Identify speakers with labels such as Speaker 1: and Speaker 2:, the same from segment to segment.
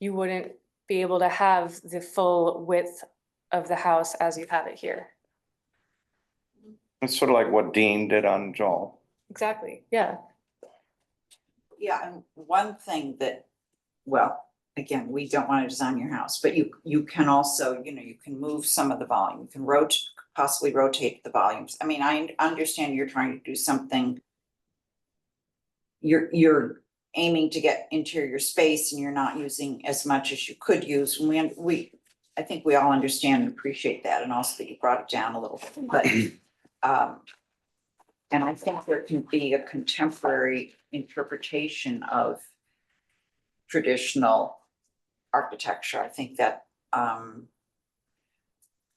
Speaker 1: you wouldn't be able to have the full width of the house as you have it here.
Speaker 2: It's sort of like what Dean did on Joel.
Speaker 1: Exactly. Yeah,
Speaker 3: Yeah, and one thing that, well, again, we don't wanna design your house, but you, you can also, you know, you can move some of the volume, you can rot- possibly rotate the volumes. I mean, I understand you're trying to do something. You're, you're aiming to get interior space and you're not using as much as you could use, and we, we, I think we all understand and appreciate that, and also that you brought it down a little, but, um, and I think there can be a contemporary interpretation of traditional architecture. I think that, um,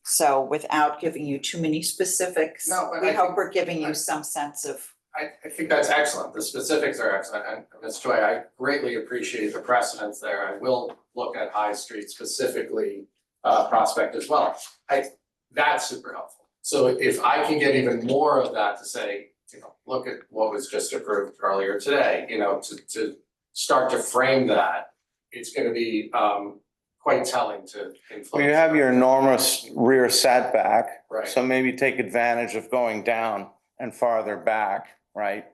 Speaker 3: so without giving you too many specifics,
Speaker 4: No, but
Speaker 3: we
Speaker 4: I
Speaker 3: hope
Speaker 4: think-
Speaker 3: we're giving
Speaker 4: I-
Speaker 3: you some sense of,
Speaker 4: I, I think that's excellent. The specifics are excellent. And Ms. Choi, I greatly appreciate the precedence there. I will look at High Street specifically, uh, Prospect as well. I, that's super helpful. So if I can get even more of that to say, you know, look at what was just approved earlier today, you know, to, to start to frame that, it's gonna be, um, quite telling to influence.
Speaker 2: Well, you have your enormous rear setback,
Speaker 4: Right,
Speaker 2: so maybe take advantage of going down and farther back, right?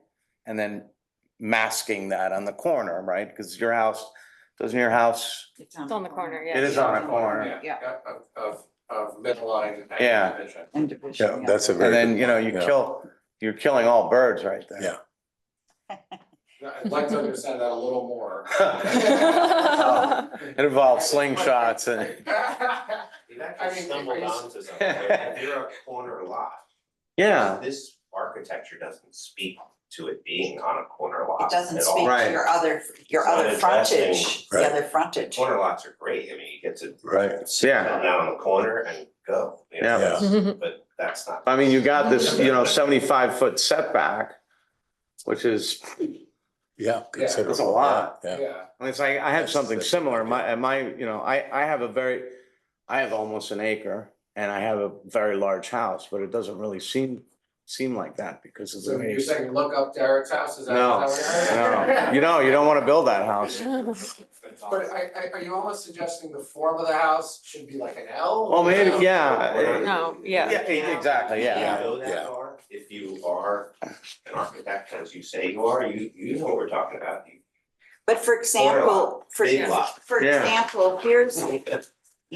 Speaker 2: And then masking that on the corner, right? Because your house, doesn't your house,
Speaker 3: it's on.
Speaker 1: it's on the corner, yeah.
Speaker 2: it is on a corner.
Speaker 4: yeah, yeah, of, of, of midline and
Speaker 2: Yeah.
Speaker 4: division.
Speaker 3: And division.
Speaker 5: Yeah, that's a
Speaker 2: And
Speaker 5: very.
Speaker 2: then,
Speaker 5: good
Speaker 2: you know,
Speaker 5: point,
Speaker 2: you
Speaker 5: yeah.
Speaker 2: kill, you're killing all birds right there.
Speaker 5: Yeah.
Speaker 4: I'd like to understand that a little more.
Speaker 2: It involves slingshots and,
Speaker 6: You actually
Speaker 4: I mean,
Speaker 6: stumbled
Speaker 4: it's-
Speaker 6: onto something, If you're a corner lot.
Speaker 2: yeah,
Speaker 6: This architecture doesn't speak to it being on a corner lot
Speaker 3: It doesn't
Speaker 6: at all.
Speaker 3: speak to
Speaker 2: Right.
Speaker 3: your other, your
Speaker 6: It's not
Speaker 3: other
Speaker 6: addressing-
Speaker 3: frontage, the
Speaker 5: Right.
Speaker 3: other frontage.
Speaker 6: Corner lots are great, I mean, you get to
Speaker 5: Right,
Speaker 6: sit
Speaker 2: Yeah.
Speaker 6: down on the corner and go, you
Speaker 2: Yeah.
Speaker 6: know,
Speaker 1: Yeah.
Speaker 6: but that's not.
Speaker 2: I mean, you got this, you know, seventy-five foot setback, which is,
Speaker 5: yeah. considerable,
Speaker 2: It's a lot.
Speaker 5: Yeah,
Speaker 4: Yeah,
Speaker 2: I mean, it's like, I have
Speaker 5: That's
Speaker 2: something
Speaker 5: the-
Speaker 2: similar, my, and my, you know, I, I have a very, I have almost an acre, and I have a very large house, but it doesn't really seem, seem like that because of the
Speaker 4: so
Speaker 2: way.
Speaker 4: you're saying look up Derek's house, is that?
Speaker 2: No,
Speaker 4: is that
Speaker 2: no,
Speaker 4: what-
Speaker 2: you know, you don't wanna build that house.
Speaker 4: But I, I, are you almost suggesting the form of the house should be like an L?
Speaker 2: Well, maybe,
Speaker 6: Whatever.
Speaker 2: yeah.
Speaker 1: No, yeah.
Speaker 2: Yeah, e- exactly,
Speaker 6: You
Speaker 2: yeah.
Speaker 6: know that
Speaker 5: Yeah.
Speaker 6: far. if you are an architect, as you say you are, you, you know what we're talking about. You-
Speaker 3: But for example, for,
Speaker 6: Big lot.
Speaker 3: for
Speaker 2: Yeah.
Speaker 3: example, here's, you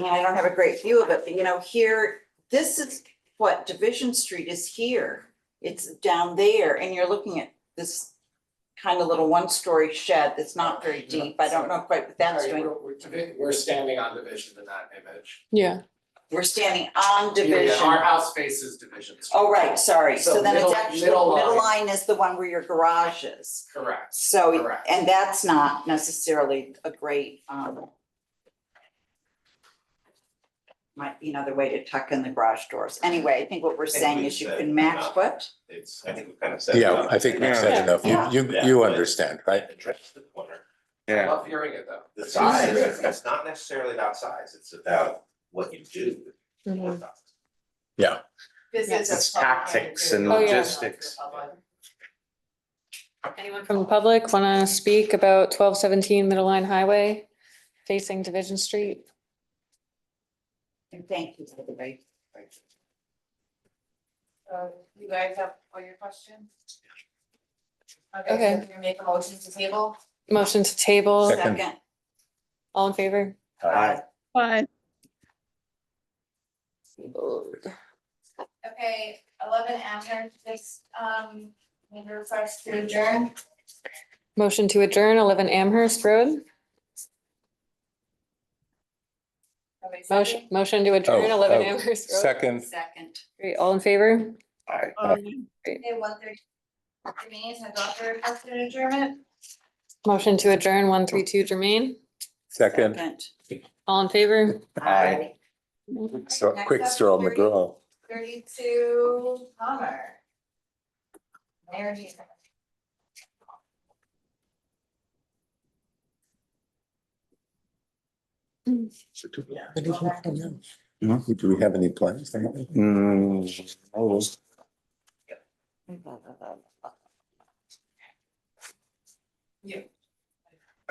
Speaker 3: know, I don't have a great view of it, but you know, here, this is what Division Street is here. It's down there and you're looking at this kind of little one-story shed that's not very deep. I don't know quite what that's
Speaker 4: Sorry,
Speaker 3: doing.
Speaker 4: we're- we're divi- We're standing on division in that image.
Speaker 1: Yeah.
Speaker 3: We're standing on
Speaker 4: Yeah, yeah, Our
Speaker 3: Division.
Speaker 4: house faces division.
Speaker 3: Oh, right, sorry.
Speaker 4: So
Speaker 3: So then it's
Speaker 4: middle-
Speaker 3: actually,
Speaker 4: middle
Speaker 3: middle
Speaker 4: line.
Speaker 3: line is the one where your garage is.
Speaker 4: Correct.
Speaker 3: So,
Speaker 4: Correct.
Speaker 3: and that's not necessarily a great, um. Might be another way to tuck in the garage doors. Anyway, I think what we're saying is you can match what,
Speaker 6: It's, I think we've kind of said.
Speaker 5: yeah,
Speaker 6: that.
Speaker 5: I think we've
Speaker 1: Yeah.
Speaker 5: said enough,
Speaker 3: Yeah.
Speaker 5: you, you,
Speaker 6: Yeah.
Speaker 5: you understand, right?
Speaker 6: Address the corner.
Speaker 4: I
Speaker 2: Yeah,
Speaker 4: Love hearing it though.
Speaker 6: The size, it's not necessarily about size, it's about what you do. with
Speaker 1: Mhm.
Speaker 6: the size.
Speaker 7: This
Speaker 3: Yeah,
Speaker 7: is a.
Speaker 2: it's
Speaker 7: public
Speaker 2: tactics
Speaker 7: hearing.
Speaker 2: and
Speaker 1: Oh, yeah.
Speaker 2: logistics.
Speaker 7: Anyone
Speaker 1: From the
Speaker 7: from public?
Speaker 1: public, wanna speak about twelve seventeen Middle Line Highway facing Division Street?
Speaker 3: and thank you, everybody.
Speaker 7: Uh, You guys have all your questions?
Speaker 1: Okay.
Speaker 7: Okay, so you make a motion to table?
Speaker 1: Motion to table,
Speaker 5: Second.
Speaker 3: Second,
Speaker 1: all in favor?
Speaker 3: uh,
Speaker 7: Okay, eleven after this, um, need to refresh to adjourn.
Speaker 1: Motion to adjourn eleven Amherst Road.
Speaker 7: Everybody
Speaker 1: Motion,
Speaker 7: second?
Speaker 1: motion to adjourn
Speaker 5: Oh,
Speaker 1: eleven
Speaker 5: oh,
Speaker 1: Amherst Road.
Speaker 5: Second,
Speaker 3: second.
Speaker 1: Great, all in favor?
Speaker 7: Okay, one thirty. The meeting has also requested adjournment.
Speaker 1: Motion to adjourn one three two Jermaine,
Speaker 5: second,
Speaker 1: all in favor?
Speaker 3: Aye.
Speaker 5: so
Speaker 7: Next
Speaker 5: quick
Speaker 7: up,
Speaker 5: straw McGraw.
Speaker 7: Thirty-two Palmer. Mayor Jeter.
Speaker 5: Do we have any plans?
Speaker 2: Mm, almost.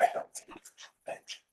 Speaker 6: I don't think-